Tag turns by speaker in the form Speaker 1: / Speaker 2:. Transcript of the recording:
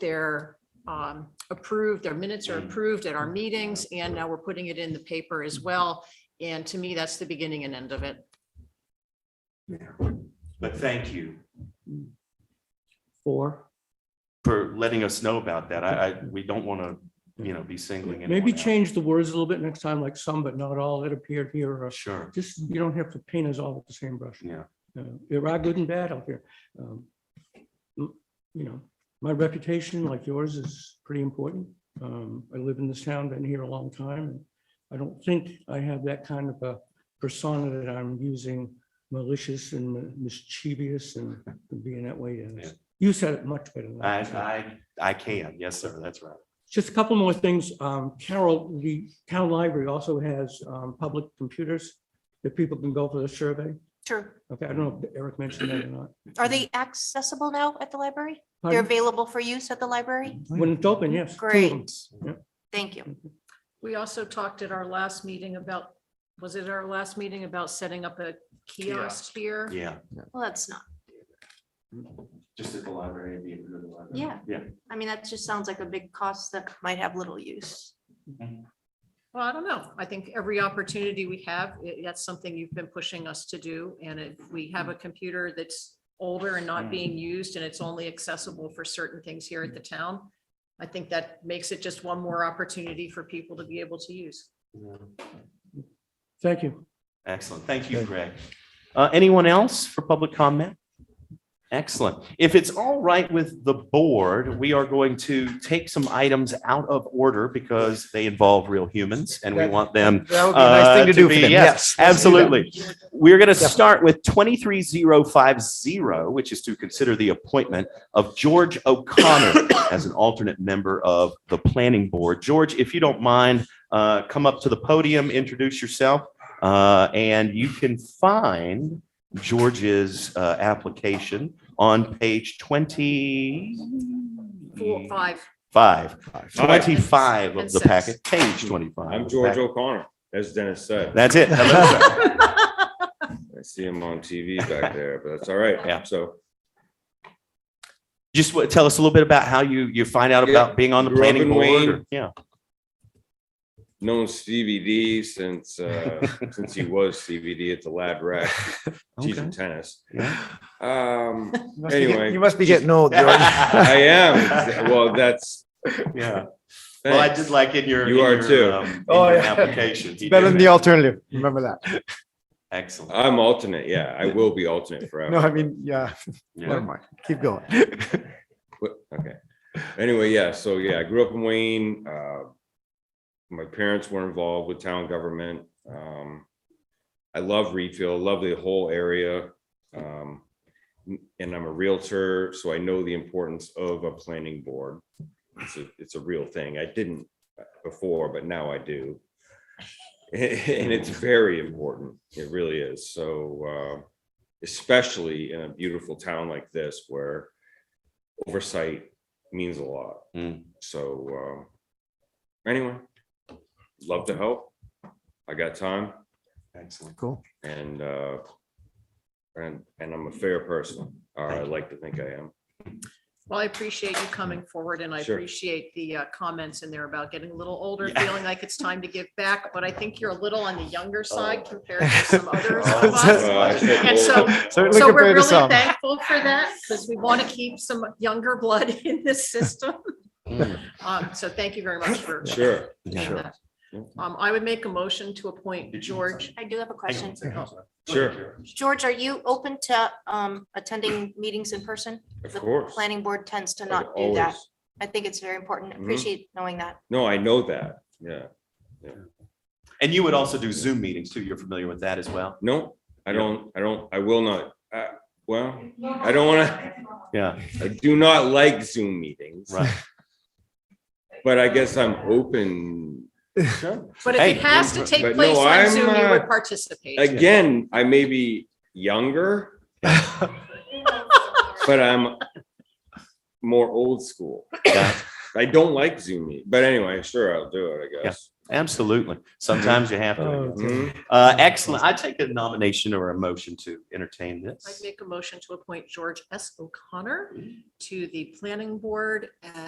Speaker 1: they're um, approved, their minutes are approved at our meetings, and now we're putting it in the paper as well. And to me, that's the beginning and end of it.
Speaker 2: But thank you
Speaker 3: Four.
Speaker 2: for letting us know about that. I, I, we don't want to, you know, be singling. anyone
Speaker 3: Maybe
Speaker 2: out.
Speaker 3: change the words a little bit next time, like some but not all that appeared here. or
Speaker 2: Sure,
Speaker 3: Just, you don't have to paint us all with the same brush.
Speaker 2: yeah.
Speaker 3: Uh, There are good and bad out there. Um, m- You know, my reputation, like yours, is pretty important. Um, I live in this town, been here a long time. and I don't think I have that kind of a persona that I'm using malicious and mi- mischievous and being that way. And
Speaker 2: Yeah.
Speaker 3: You said it much better than
Speaker 2: I,
Speaker 3: I. did.
Speaker 2: I, I can. Yes, sir. That's right.
Speaker 3: Just a couple more things. Um, Carol, the town library also has, um, public computers that people can go for the survey.
Speaker 4: Sure.
Speaker 3: Okay, I don't know if Eric mentioned that or not.
Speaker 4: Are they accessible now at the library? They're
Speaker 3: Pardon? Mm.
Speaker 4: available for use at the library?
Speaker 3: When it's open, yes. two of them.
Speaker 4: Great.
Speaker 3: Yeah.
Speaker 4: Thank you.
Speaker 1: We also talked at our last meeting about, was it our last meeting about setting up a kiosk here?
Speaker 2: Yeah.
Speaker 4: Well, that's not,
Speaker 2: Just at the library. be at the library.
Speaker 4: Yeah.
Speaker 2: Yeah.
Speaker 4: I mean, that just sounds like a big cost that might have little use.
Speaker 1: Well, I don't know. I think every opportunity we have, i- that's something you've been pushing us to do. And if we have a computer that's older and not being used and it's only accessible for certain things here at the town, I think that makes it just one more opportunity for people to be able to use.
Speaker 2: Yeah.
Speaker 3: Thank you.
Speaker 2: Excellent. Thank you, Greg. Uh, Anyone else for public comment? Excellent. If it's all right with the board, we are going to take some items out of order because they involve real humans and we
Speaker 5: That-
Speaker 2: want them.
Speaker 5: That would be a nice
Speaker 2: uh,
Speaker 5: thing to do for
Speaker 2: be-
Speaker 5: them, yes. let's do that.
Speaker 2: Absolutely. We're going to
Speaker 5: Yeah.
Speaker 2: start with 23050, which is to consider the appointment of George O'Connor as an alternate member of the planning board. George, if you don't mind, uh, come up to the podium, introduce yourself, uh, and you can find George's uh, application on page 25,
Speaker 1: Four,
Speaker 2: Mm.
Speaker 1: five.
Speaker 2: 25 of
Speaker 1: And
Speaker 2: the
Speaker 1: six.
Speaker 2: packet, page 25.
Speaker 6: I'm George O'Connor, as Dennis said.
Speaker 2: That's it. Hello, sir.
Speaker 6: I see him on TV back there, but that's all right.
Speaker 2: Yeah.
Speaker 6: So
Speaker 2: Just what, tell us a little bit about how you, you find out
Speaker 6: Yeah.
Speaker 2: about being on the
Speaker 6: Grew up
Speaker 2: planning
Speaker 6: in
Speaker 2: board.
Speaker 6: Wayne.
Speaker 2: or- Yeah.
Speaker 6: known Stevie D since, uh, since he was Stevie D at the Lad Rack, teaching tennis.
Speaker 2: Yeah.
Speaker 6: Um,
Speaker 5: You must be get-
Speaker 6: Anyway.
Speaker 5: You must be getting old, George.
Speaker 6: I am, well, that's,
Speaker 2: Yeah. Well, I
Speaker 6: thanks.
Speaker 2: did like in your.
Speaker 6: You
Speaker 2: in
Speaker 6: are
Speaker 2: your,
Speaker 6: too.
Speaker 2: um, in
Speaker 5: Oh,
Speaker 2: your
Speaker 5: yeah.
Speaker 2: Application. he
Speaker 5: Better than
Speaker 2: did
Speaker 5: the
Speaker 2: that.
Speaker 5: alternative. Remember that.
Speaker 2: Excellent.
Speaker 6: I'm alternate, yeah, I will be alternate forever.
Speaker 5: No, I mean, yeah, never
Speaker 2: Yeah.
Speaker 5: mind. Keep going.
Speaker 6: What- Okay. Anyway, yeah, so yeah, I grew up in Wayne. Uh, my parents were involved with town government. Um, I love Reedfield, love the whole area. Um, and I'm a Realtor, so I know the importance of a planning board. It's a, it's a real thing. I didn't before, but now I do. And it's very important. It really is. So, uh, especially in a beautiful town like this where oversight means a lot.
Speaker 2: Mm.
Speaker 6: So uh, anyway, love to help. I got time
Speaker 2: Excellent.
Speaker 5: Cool.
Speaker 6: and uh, and and I'm a fair person, or I like to think I am.
Speaker 1: Well, I appreciate you coming forward and I
Speaker 6: Sure.
Speaker 1: appreciate the uh, comments in there about getting a little older,
Speaker 2: Yeah.
Speaker 1: feeling like it's time to give back. But I think you're a little on the younger side compared to some others
Speaker 2: Oh,
Speaker 1: of us.
Speaker 6: Uh, I said
Speaker 1: And so-
Speaker 6: old.
Speaker 5: Certainly
Speaker 1: So we're
Speaker 5: compared to
Speaker 1: really
Speaker 5: some.
Speaker 1: thankful for that because we want to keep some younger blood in this system.
Speaker 2: Mm.
Speaker 1: Um, So thank you very much for.
Speaker 6: Sure.
Speaker 2: Yeah.
Speaker 1: that. Um, I would make a motion to appoint George.
Speaker 4: I do
Speaker 2: Hang
Speaker 4: have a
Speaker 2: on
Speaker 4: question.
Speaker 2: one second, I'm sorry.
Speaker 6: Sure.
Speaker 4: George, are you open to um, attending meetings in person?
Speaker 6: Of
Speaker 4: The
Speaker 6: course.
Speaker 4: Planning board tends to
Speaker 6: I've
Speaker 4: not do that.
Speaker 6: Oh, always-
Speaker 4: I think it's very important.
Speaker 6: Mhm.
Speaker 4: Appreciate knowing that.
Speaker 6: No, I know that. Yeah.
Speaker 2: And you would also do Zoom meetings too. You're familiar with that as well?
Speaker 6: No, I
Speaker 2: Yeah.
Speaker 6: don't. I don't. I will not. I, well, I don't want to.
Speaker 2: Yeah,
Speaker 6: I do not like Zoom meetings,
Speaker 2: right.
Speaker 6: but I guess I'm open
Speaker 1: But if it
Speaker 2: Hey,
Speaker 1: has to
Speaker 6: but-
Speaker 1: take
Speaker 6: but
Speaker 1: place
Speaker 6: no,
Speaker 1: on
Speaker 6: I'm,
Speaker 1: Zoom, you would
Speaker 6: uh,
Speaker 1: participate.
Speaker 6: Again, I may be younger, but I'm more old school.
Speaker 2: Yeah.
Speaker 6: I don't like Zoom meet, but anyway, sure, I'll do it, I guess.
Speaker 2: Absolutely. Sometimes you have to.
Speaker 3: Oh,
Speaker 6: Mhm.
Speaker 2: Uh, excellent. I take a nomination or a motion to entertain
Speaker 1: I'd
Speaker 2: this.
Speaker 1: make a motion to appoint George S. O'Connor to the planning board as